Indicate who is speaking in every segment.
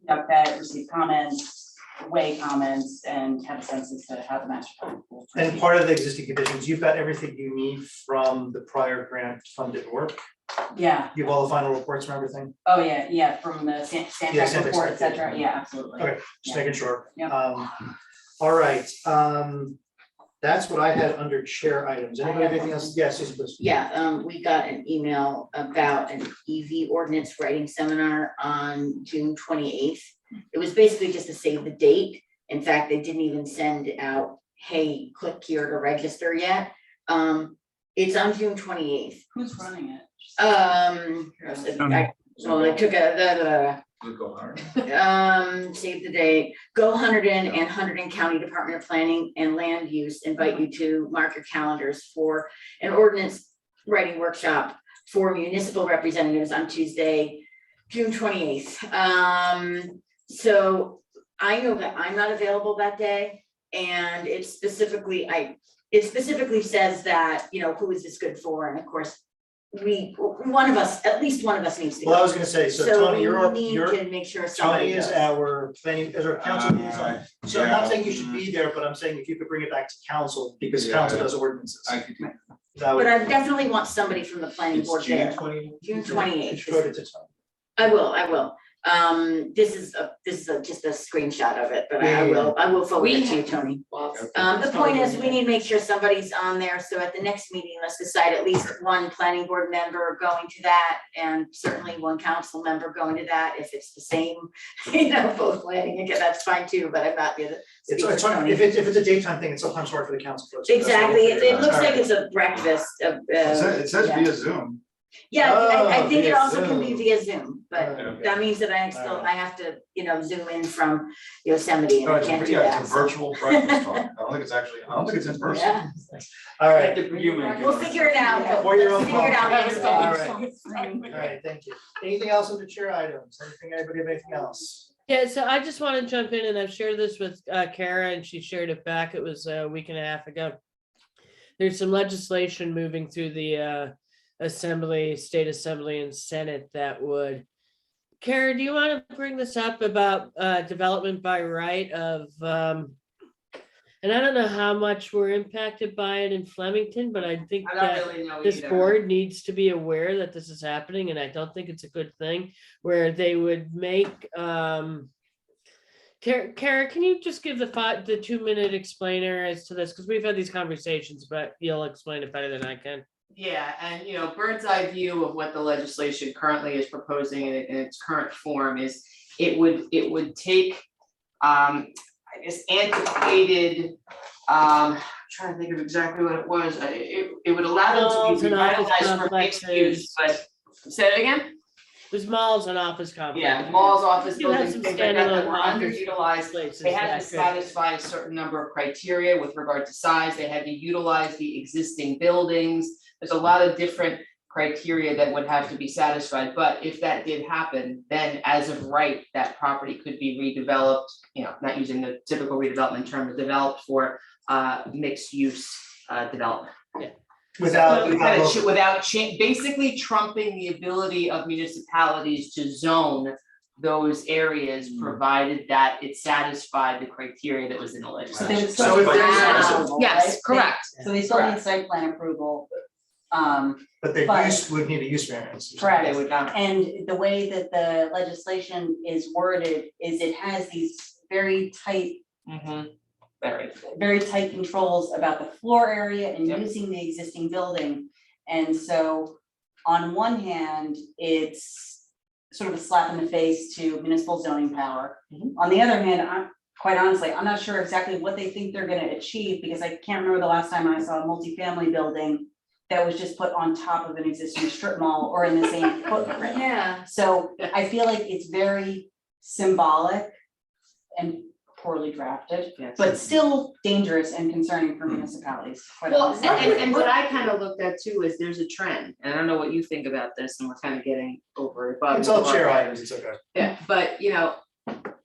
Speaker 1: conduct that, receive comments, weigh comments, and have a sense as to how the master plan will. proceed.
Speaker 2: And part of the existing conditions, you've got everything you need from the prior grant funded work.
Speaker 1: Yeah,
Speaker 2: You have all the final reports and everything,
Speaker 1: oh, yeah, yeah, from the San,
Speaker 2: Yeah,
Speaker 1: Sandtrack
Speaker 2: Sandtrack
Speaker 1: report, et
Speaker 2: stuff, yeah.
Speaker 1: cetera, yeah, absolutely.
Speaker 2: Okay. just
Speaker 1: Yeah.
Speaker 2: making sure.
Speaker 1: Yeah.
Speaker 2: Um, all right, um, that's what I had under chair items.
Speaker 3: I
Speaker 2: Anybody have
Speaker 3: have
Speaker 2: anything else? Yes, Susan, please.
Speaker 3: Yeah, um, we got an email about an EV ordinance writing seminar on June twenty eighth. It was basically just to save the date. In fact, they didn't even send out, hey, click here to register yet. Um, it's on June twenty eighth.
Speaker 1: Who's running it?
Speaker 3: Um, I- well, they took a, da, da, da, da.
Speaker 4: Go hard.
Speaker 3: Um, save the date, go Hunterdon and Hunterdon County Department of Planning and Land Use invite you to mark your calendars for an ordinance writing workshop for municipal representatives on Tuesday, June twenty eighth. Um, so I know that I'm not available that day. And it specifically, I, it specifically says that, you know, who is this good for? And of course, we, one of us, at least one of us needs to go.
Speaker 2: Well, I was gonna say, so Tony, you're, our-
Speaker 3: we
Speaker 2: you're,
Speaker 3: need to make sure
Speaker 2: Tony
Speaker 3: somebody
Speaker 2: is
Speaker 3: goes.
Speaker 2: our planning, is our council liaison.
Speaker 4: Uh,
Speaker 2: So I'm not
Speaker 4: yeah.
Speaker 2: saying you should be there, but I'm saying if you could bring it back to council, because
Speaker 4: Yeah.
Speaker 2: council does ordinances.
Speaker 4: I could do.
Speaker 2: That would-
Speaker 3: But I definitely want somebody from the planning
Speaker 4: It's
Speaker 3: board
Speaker 4: June
Speaker 3: there.
Speaker 4: twenty.
Speaker 3: June 28th.
Speaker 2: Just vote it to Tony.
Speaker 3: I will, I will. Um, this is a, this is a, just a screenshot of it, but I I
Speaker 2: Yeah, yeah,
Speaker 3: will, I will forward it to you,
Speaker 1: We-
Speaker 3: Tony.
Speaker 4: Okay.
Speaker 3: Um, the point is, we need to make sure somebody's on there, so at the next meeting, let's decide at least one planning board member going to that. And certainly one council member going to that, if it's the same, you know, both planning, again, that's fine too, but I'm not the other.
Speaker 2: It's, it's hard, if it's, if it's a daytime thing, it's sometimes hard for the council folks. but that's what
Speaker 3: Exactly,
Speaker 2: we'll
Speaker 3: it,
Speaker 2: figure
Speaker 3: it
Speaker 2: out.
Speaker 3: looks
Speaker 2: All
Speaker 3: like
Speaker 2: right.
Speaker 3: it's a breakfast of,
Speaker 5: It
Speaker 3: uh,
Speaker 5: says, it says
Speaker 3: yeah.
Speaker 5: via Zoom.
Speaker 3: yeah, I, I
Speaker 2: Oh,
Speaker 3: think it
Speaker 2: via
Speaker 3: also can be
Speaker 2: Zoom.
Speaker 3: via Zoom, but.
Speaker 2: Uh,
Speaker 3: That means that I still, I have to, you know, zoom in from Yosemite and
Speaker 5: No,
Speaker 3: I
Speaker 5: it's,
Speaker 3: can't do
Speaker 5: yeah,
Speaker 3: that.
Speaker 5: it's a
Speaker 3: so-
Speaker 5: virtual breakfast talk. I don't think it's actually, I don't think it's in person.
Speaker 3: Yeah,
Speaker 2: All right,
Speaker 3: we'll figure it out. but
Speaker 2: For your
Speaker 3: let's
Speaker 2: own
Speaker 3: Figure it out
Speaker 2: comfort.
Speaker 3: next
Speaker 2: All
Speaker 3: time.
Speaker 2: right. all right, thank you. Anything else under chair items? Anything, anybody have anything else?
Speaker 6: Yeah, so I just want to jump in and I've shared this with uh, Kara and she shared it back. It was a week and a half ago. There's some legislation moving through the uh, Assembly, State Assembly and Senate that would. Kara, do you want to bring this up about uh, development by right of? um, And I don't know how much we're impacted by it in Flemington, but I think
Speaker 1: I
Speaker 6: that
Speaker 1: don't really know either.
Speaker 6: this board needs to be aware that this is happening, and I don't think it's a good thing, where they would make, um. Kara, Kara, can you just give the five, the two minute explainer as to this, because we've had these conversations, but you'll explain it better than I can.
Speaker 7: Yeah, and you know, bird's eye view of what the legislation currently is proposing in, in its current form is it would, it would take um, I guess antiquated, um, I'm trying to think of exactly what it was, I- it, it would allow them to
Speaker 6: Malls
Speaker 7: be
Speaker 6: and office
Speaker 7: revitalized for mixed use, but say it again?
Speaker 6: There's malls and office complexes.
Speaker 7: Yeah, malls, office
Speaker 6: You have
Speaker 7: buildings,
Speaker 6: some
Speaker 7: things like that that
Speaker 6: standalone
Speaker 7: were
Speaker 6: office
Speaker 7: underutilized,
Speaker 6: Places
Speaker 7: they had to
Speaker 6: that could-
Speaker 7: satisfy a certain number of criteria with regard to size, they had to utilize the existing buildings. There's a lot of different criteria that would have to be satisfied, but if that did happen, then as of right, that property could be redeveloped. You know, not using the typical redevelopment term, but developed for uh mixed use uh development.
Speaker 2: Without,
Speaker 6: So
Speaker 7: We
Speaker 2: without,
Speaker 7: had a
Speaker 2: local-
Speaker 7: ch- Without cha- basically trumping the ability of municipalities to zone those areas,
Speaker 2: Mm.
Speaker 7: provided that it satisfied the criteria that was in the
Speaker 1: So
Speaker 7: legislation.
Speaker 1: they would
Speaker 5: So
Speaker 1: still need
Speaker 5: if there's-
Speaker 1: site
Speaker 5: Wow.
Speaker 1: approval, right?
Speaker 7: Yes, correct.
Speaker 1: So they still need site plan approval. Um,
Speaker 2: but the
Speaker 1: but-
Speaker 2: use would need a use variance. or something.
Speaker 1: Correct.
Speaker 7: They would not,
Speaker 1: and the way that the legislation is worded is it has these very tight
Speaker 2: Mm-hmm.
Speaker 7: mhm, very.
Speaker 1: very tight controls about the floor area and
Speaker 7: Yep.
Speaker 1: using the existing building. And so on one hand, it's sort of a slap in the face to municipal zoning power.
Speaker 7: Mhm.
Speaker 1: On the other hand, I'm, quite honestly, I'm not sure exactly what they think they're gonna achieve because I can't remember the last time I saw a multifamily building that was just put on top of an existing strip mall or in the same footprint.
Speaker 3: Yeah,
Speaker 1: So I feel like it's very symbolic and poorly drafted,
Speaker 7: Yes.
Speaker 1: but still dangerous and concerning for municipalities. quite
Speaker 7: Well,
Speaker 1: honestly.
Speaker 7: and, and- and what I kind of looked at too is there's a trend, and I don't know what you think about this, and we're kind of getting over it, but.
Speaker 2: It's all chair items, it's okay.
Speaker 7: Yeah, but you know,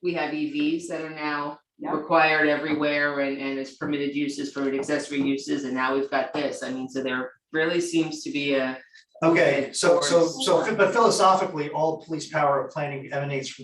Speaker 7: we have EVs that are now
Speaker 1: Yeah.
Speaker 7: required everywhere and and it's permitted uses for accessory uses, and now we've got this, I mean, so there really seems to be a
Speaker 2: Okay, so, so,
Speaker 7: Towards-
Speaker 2: so, but philosophically, all police power of planning emanates from